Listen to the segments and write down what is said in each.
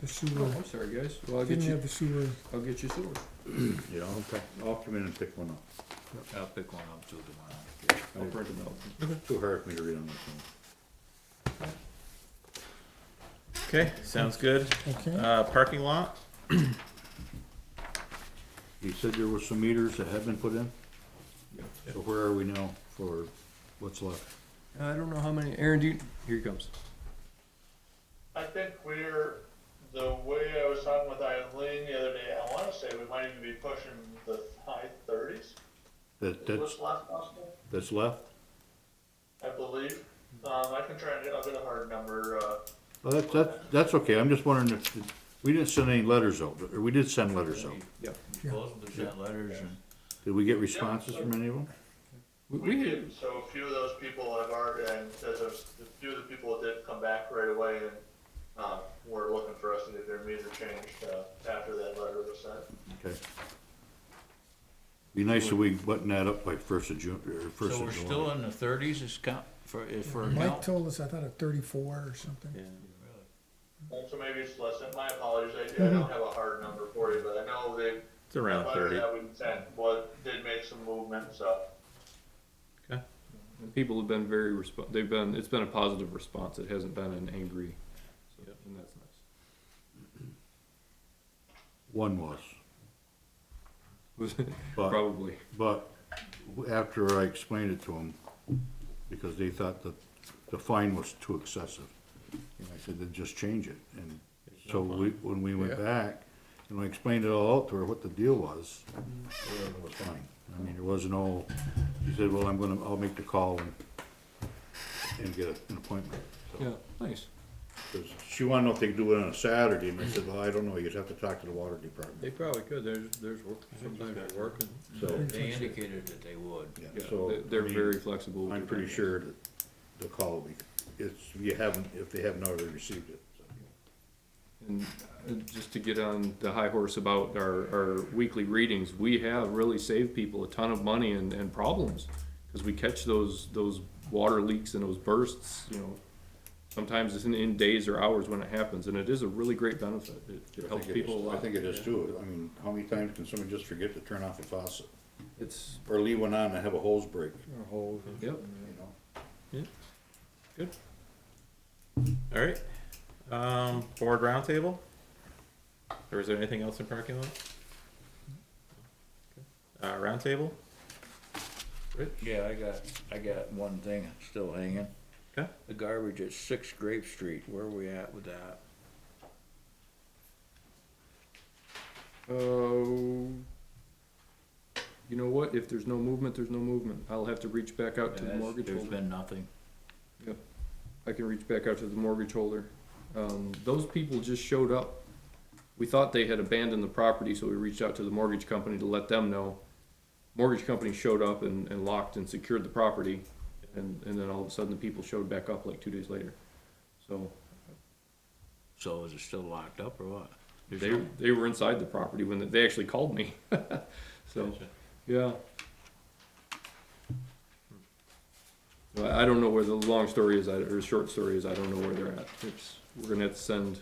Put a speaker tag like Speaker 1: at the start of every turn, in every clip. Speaker 1: the sewer.
Speaker 2: Oh, I'm sorry, guys. Well, I'll get
Speaker 1: Didn't
Speaker 2: you,
Speaker 1: have the sewer.
Speaker 2: I'll get you sewer.
Speaker 3: Yeah, okay. I'll come in and pick one up.
Speaker 4: I'll pick one up too tomorrow.
Speaker 2: I'll print them out.
Speaker 3: Too hard for me to read on my phone.
Speaker 5: Okay, sounds good.
Speaker 1: Okay,
Speaker 5: Uh, parking lot?
Speaker 3: He said there were some meters that had been put in,
Speaker 2: Yeah.
Speaker 3: so where are we now for what's left?
Speaker 2: I don't know how many, Aaron, do you, here he comes.
Speaker 6: I think we're, the way I was talking with Eileen the other day, I wanna say we might even be pushing the high thirties.
Speaker 3: That,
Speaker 6: Was
Speaker 3: that's,
Speaker 6: last possible,
Speaker 3: that's left?
Speaker 6: I believe. Um, I can try and, I'll get a hard number, uh,
Speaker 3: Well, Oh, that's, that's, that's okay, I'm just wondering if, we didn't send any letters out, or we did send letters out.
Speaker 2: Yeah.
Speaker 1: Yeah.
Speaker 4: Both of them sent letters and
Speaker 3: Did we get responses from any of them?
Speaker 2: We,
Speaker 6: we
Speaker 2: we
Speaker 6: did,
Speaker 2: had,
Speaker 6: so a few of those people have already, and there's a, a few of the people that did come back right away and, um, were looking for us to get their meter changed, uh, after that letter was sent.
Speaker 3: Okay. Be nice if we button that up by first of June, or first
Speaker 4: so we're
Speaker 3: of
Speaker 4: still
Speaker 3: July.
Speaker 4: in the thirties is count for, if for a
Speaker 1: Mike
Speaker 4: count.
Speaker 1: told us, I thought at thirty-four or something.
Speaker 5: Yeah.
Speaker 6: And so maybe it's less, than- my apologies, I, I don't have a hard number for you, but I know they,
Speaker 5: It's around
Speaker 6: Letter
Speaker 5: thirty.
Speaker 6: That we sent, but did make some movement, so.
Speaker 2: people have been very resp- they've been, it's been a positive response. It hasn't been an angry, so, and that's nice.
Speaker 3: One was,
Speaker 2: Was-
Speaker 3: but,
Speaker 2: Probably.
Speaker 3: but after I explained it to them, because they thought that the fine was too excessive. And I said, then just change it, and so we, when we went back, and I explained it all out to her, what the deal was, it was fine. I mean, there was no, she said, well, I'm gonna, I'll make the call and, and get an appointment, so.
Speaker 2: Yeah, nice.
Speaker 3: 'Cause She wanted to know if they could do it on a Saturday, and I said, well, I don't know, you'd have to talk to the water
Speaker 4: They
Speaker 3: department.
Speaker 4: probably could, there's, there's work, sometimes they're working.
Speaker 3: So-
Speaker 4: They indicated that they would.
Speaker 3: Yeah,
Speaker 2: Yeah,
Speaker 3: so,
Speaker 2: they- they're
Speaker 3: I mean,
Speaker 2: very flexible. with
Speaker 3: I'm
Speaker 2: their
Speaker 3: pretty
Speaker 2: timelines.
Speaker 3: sure that the call will be, it's, you haven't, if they haven't already received it. so.
Speaker 2: And uh, just to get on the high horse about our, our weekly readings, we have really saved people a ton of money and, and problems. Cause we catch those, those water leaks and those bursts, you know, sometimes it's in, in days or hours when it happens, and it is a really great benefit. It-
Speaker 3: I
Speaker 2: It helps
Speaker 3: think it is-
Speaker 2: people a lot.
Speaker 3: I think it is too, I mean, how many times can someone just forget to turn off a faucet,
Speaker 2: It's,
Speaker 3: or leave one on and have a hose break,
Speaker 2: yep,
Speaker 3: you know?
Speaker 5: All right. Um, board roundtable? Or is there anything else in parking lot? Uh, roundtable?
Speaker 4: Yeah, I got, I got one thing still hanging.
Speaker 5: Okay.
Speaker 4: The garbage at Six Grape Street, where are we at with that?
Speaker 2: uh, you know what, if there's no movement, there's no movement. I'll have to reach back out to the
Speaker 4: There's-
Speaker 2: mortgage
Speaker 4: There's
Speaker 2: holder.
Speaker 4: been nothing.
Speaker 2: I can reach back out to the mortgage holder. Um, those people just showed up. We thought they had abandoned the property, so we reached out to the mortgage company to let them know. Mortgage company showed up and, and locked and secured the property, and, and then all of a sudden the people showed back up like two days later. So
Speaker 4: So is it still locked up or what? There's
Speaker 2: they,
Speaker 4: no-
Speaker 2: they were inside the property when they- they actually called me. So, yeah. So Hmm. I, I don't know where the long story is, I- or the short story is, I don't know where they're at. It's, we're gonna have to send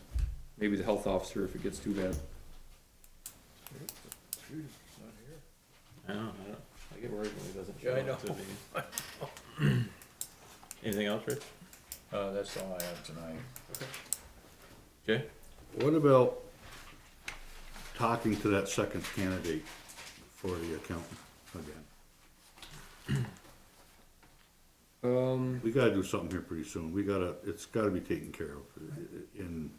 Speaker 2: maybe the health officer if it gets too bad.
Speaker 5: I don't, I don't, I get worried when it doesn't show
Speaker 4: Yeah, I
Speaker 5: up to
Speaker 4: know.
Speaker 5: me. Anything else, Rich?
Speaker 4: Uh, that's all I have tonight.
Speaker 5: Jay?
Speaker 3: What about talking to that second candidate for the accountant again?
Speaker 2: Um,
Speaker 3: We gotta do something here pretty soon, we gotta, it's gotta be taken care of, i- i- in,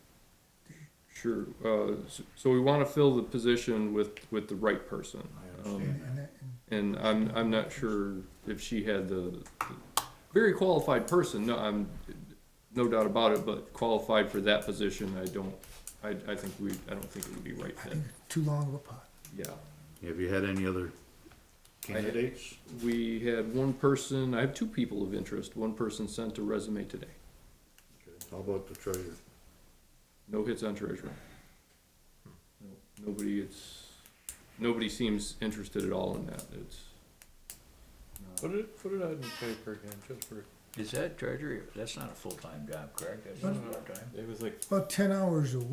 Speaker 2: sure, uh, so, so we wanna fill the position with, with the right person.
Speaker 3: I
Speaker 2: Um,
Speaker 3: understand that.
Speaker 1: And that- and
Speaker 2: And I'm, I'm not sure if she had the, very qualified person, no, I'm, no doubt about it, but qualified for that position, I don't, I, I think we, I don't think it would be right
Speaker 1: I
Speaker 2: fit,
Speaker 1: think too long of a pot.
Speaker 2: yeah.
Speaker 3: Have you had any other
Speaker 2: had-
Speaker 3: candidates?
Speaker 2: We had one person, I have two people of interest, one person sent a resume today,
Speaker 3: How about the treasurer?
Speaker 2: no hits on treasurer. No- Nobody, it's, nobody seems interested at all in that, it's,
Speaker 4: Put it, put it out in the paper again, just for. Is that treasury, that's not a full-time job, correct? That's not
Speaker 1: But-
Speaker 4: part-time?
Speaker 5: It was like
Speaker 1: About ten hours a